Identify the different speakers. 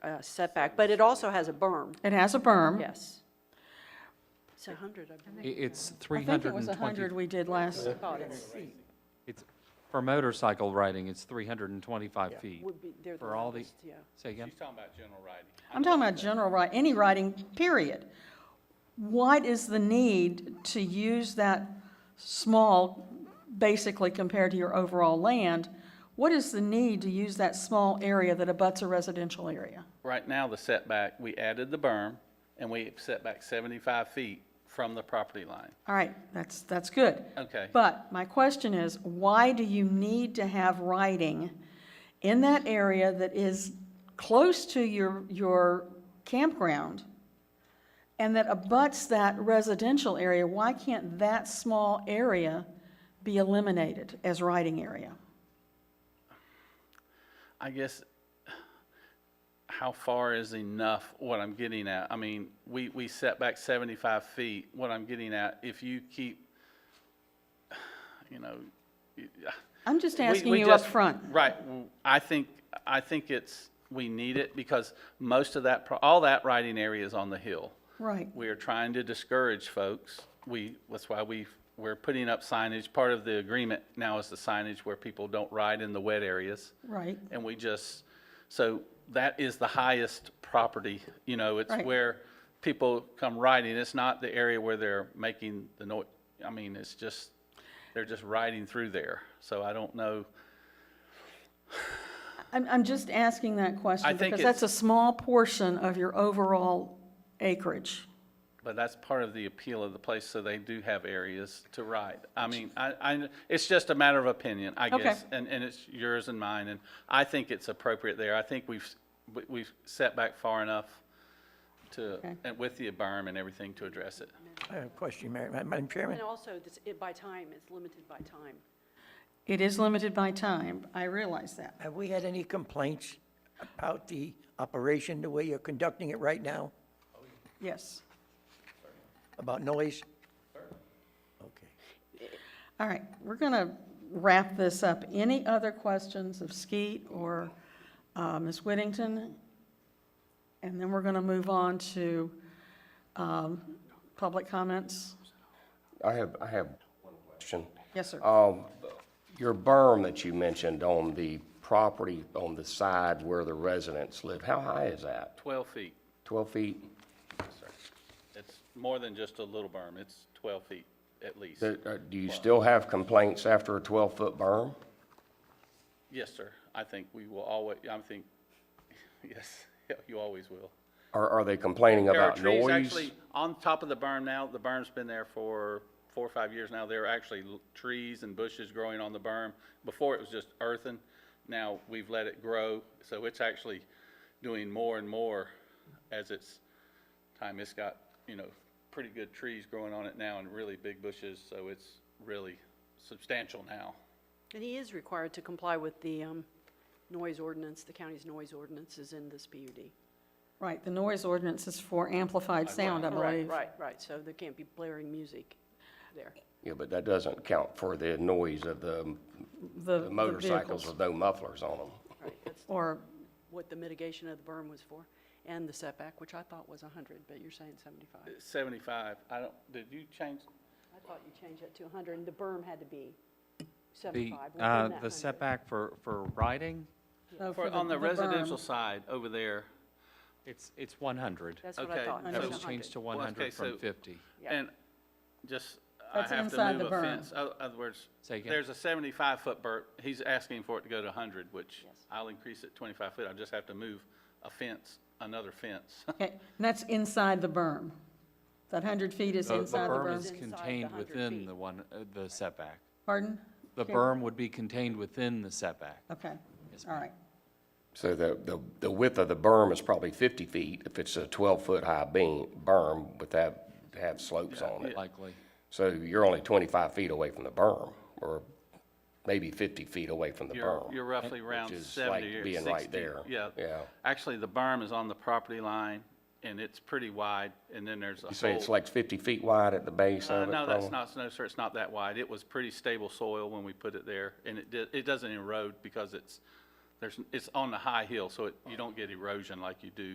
Speaker 1: uh, setback, but it also has a berm,
Speaker 2: It has a berm.
Speaker 1: yes. It's a hundred, I believe.
Speaker 3: I- It's
Speaker 2: I think it was 100
Speaker 3: 320,
Speaker 2: we did last,
Speaker 3: it's, for motorcycle riding, it's 325 feet.
Speaker 1: Would be, they're the
Speaker 3: For all the,
Speaker 1: lowest, yeah.
Speaker 3: say again?
Speaker 4: She's talking about general riding.
Speaker 2: I'm talking about general ri, any writing, period. What is the need to use that small, basically compared to your overall land? What is the need to use that small area that abuts a residential area?
Speaker 4: Right now, the setback, we added the berm, and we set back seventy-five feet from the property line.
Speaker 2: All right, that's, that's good.
Speaker 4: Okay.
Speaker 2: But my question is, why do you need to have writing in that area that is close to your, your campground and that abuts that residential area? Why can't that small area be eliminated as writing area?
Speaker 4: I guess, how far is enough, what I'm getting at? I mean, we, we set back seventy-five feet, what I'm getting at, if you keep, you know, you-
Speaker 2: I'm just
Speaker 4: we-
Speaker 2: asking
Speaker 4: we
Speaker 2: you up
Speaker 4: just-
Speaker 2: front.
Speaker 4: Right, w- I think, I think it's, we need it, because most of that, pro- all that riding area is on the hill.
Speaker 2: Right.
Speaker 4: We are trying to discourage folks. We, that's why we, we're putting up signage. Part of the agreement now is the signage where people don't ride in the wet areas.
Speaker 2: Right.
Speaker 4: And we just, so that is the highest property, you know, it's
Speaker 2: Right.
Speaker 4: where people come riding. It's not the area where they're making the noise. I mean, it's just, they're just riding through there. So I don't know.
Speaker 2: I'm, I'm just asking that question
Speaker 4: think
Speaker 2: because
Speaker 4: it's-
Speaker 2: that's a small portion of your overall acreage.
Speaker 4: But that's part of the appeal of the place, so they do have areas to ride. I mean, I, I, it's just a matter of opinion, I
Speaker 2: Okay.
Speaker 4: guess, and, and it's yours and mine, and I think it's appropriate there. I think we've, we- we've set back far enough to,
Speaker 2: Okay.
Speaker 4: and with the berm and everything to address it.
Speaker 5: I have a question, Mary- Madam Chairman.
Speaker 1: And also, this, it, by time, it's limited by time.
Speaker 2: It is limited by time. I realize that.
Speaker 5: Have we had any complaints about the operation, the way you're conducting it right now,
Speaker 2: Yes.
Speaker 5: about noise? Okay.
Speaker 2: All right, we're going to wrap this up. Any other questions of Skeet or uh, Ms. Whittington? And then we're going to move on to um, public comments.
Speaker 6: I have, I have one question. Um,
Speaker 2: Yes, sir.
Speaker 6: Your berm that you mentioned on the property on the side where the residents live, how high is that?
Speaker 4: Twelve feet,
Speaker 6: 12 feet?
Speaker 4: it's more than just a little berm, it's twelve feet at least.
Speaker 6: Do uh, do you still have complaints after a 12-foot berm?
Speaker 4: Yes, sir, I think we will always, I think, yes, you always will.
Speaker 6: Or are they complaining
Speaker 4: There are
Speaker 6: about
Speaker 4: trees
Speaker 6: noise?
Speaker 4: actually on top of the berm now. The berm's been there for four or five years now. There are actually l- trees and bushes growing on the berm. Before it was just earthen. Now we've let it grow, so it's actually doing more and more as it's time. It's got, you know, pretty good trees growing on it now and really big bushes, so it's really substantial now.
Speaker 1: And he is required to comply with the, um, noise ordinance, the county's noise ordinance is in this PUD.
Speaker 2: Right, the noise ordinance is for amplified sound, I
Speaker 1: Right,
Speaker 2: believe.
Speaker 1: right, right, so there can't be blaring music there.
Speaker 6: Yeah, but that doesn't count for the noise of the
Speaker 2: The
Speaker 6: the
Speaker 2: the
Speaker 6: motorcycles
Speaker 2: vehicles.
Speaker 6: with no mufflers on them.
Speaker 1: Right, that's
Speaker 2: Or,
Speaker 1: what the mitigation of the berm was for, and the setback, which I thought was hundred, but you're saying seventy-five.
Speaker 4: Seventy-five, I don't, did you change?
Speaker 1: I thought you changed that to hundred, and the berm had to be
Speaker 3: The,
Speaker 1: seventy-five, within
Speaker 3: uh,
Speaker 1: that
Speaker 3: the
Speaker 1: 100.
Speaker 3: setback for, for riding,
Speaker 2: no,
Speaker 4: For,
Speaker 2: oh, for the
Speaker 4: on the
Speaker 2: berm.
Speaker 4: residential side over there,
Speaker 3: it's, it's 100.
Speaker 1: That's what I
Speaker 4: Okay,
Speaker 1: thought.
Speaker 4: so-
Speaker 1: it was
Speaker 3: That was
Speaker 1: 100.
Speaker 3: changed to
Speaker 4: Well, okay,
Speaker 3: 100
Speaker 4: so-
Speaker 3: from 50.
Speaker 1: Yeah.
Speaker 4: And just, I
Speaker 2: That's
Speaker 4: have to
Speaker 2: inside
Speaker 4: move
Speaker 2: the
Speaker 4: a
Speaker 2: berm.
Speaker 4: fence. O- Other words,
Speaker 3: Say again?
Speaker 4: there's a seventy-five foot berm. He's asking for it to go to hundred, which
Speaker 1: Yes.
Speaker 4: I'll increase it twenty-five foot. I just have to move a fence, another fence.
Speaker 6: Oh,
Speaker 2: Okay, and that's inside the berm. That 100 feet is
Speaker 3: The the
Speaker 2: inside the
Speaker 3: berm is
Speaker 2: berm.
Speaker 1: Inside the
Speaker 3: contained
Speaker 1: 100
Speaker 3: within
Speaker 1: feet.
Speaker 3: the one, uh, the setback.
Speaker 2: Pardon?
Speaker 3: The
Speaker 2: Okay.
Speaker 3: berm would be contained within the setback.
Speaker 2: Okay,
Speaker 3: Yes,
Speaker 2: all right.
Speaker 6: So the, the the width of the berm is probably 50 feet if it's a 12-foot high beam, berm with that, have slopes on it.
Speaker 3: Likely.
Speaker 6: So you're only 25 feet away from the berm, or maybe 50 feet away from the
Speaker 4: You're,
Speaker 6: berm.
Speaker 4: you're roughly around
Speaker 6: is
Speaker 4: seventy
Speaker 6: like
Speaker 4: or sixty.
Speaker 6: being right there.
Speaker 4: Yeah.
Speaker 6: Yeah.
Speaker 4: Actually, the berm is on the property line and it's pretty wide and then there's a
Speaker 6: You say it's
Speaker 4: hole.
Speaker 6: like 50 feet wide at the base
Speaker 4: Uh,
Speaker 6: of it?
Speaker 4: No, that's
Speaker 6: probably?
Speaker 4: not, no, sir, it's not that wide. It was pretty stable soil when we put it there and it did, it doesn't erode because it's There's, it's on the high hill, so it- you don't get erosion like you do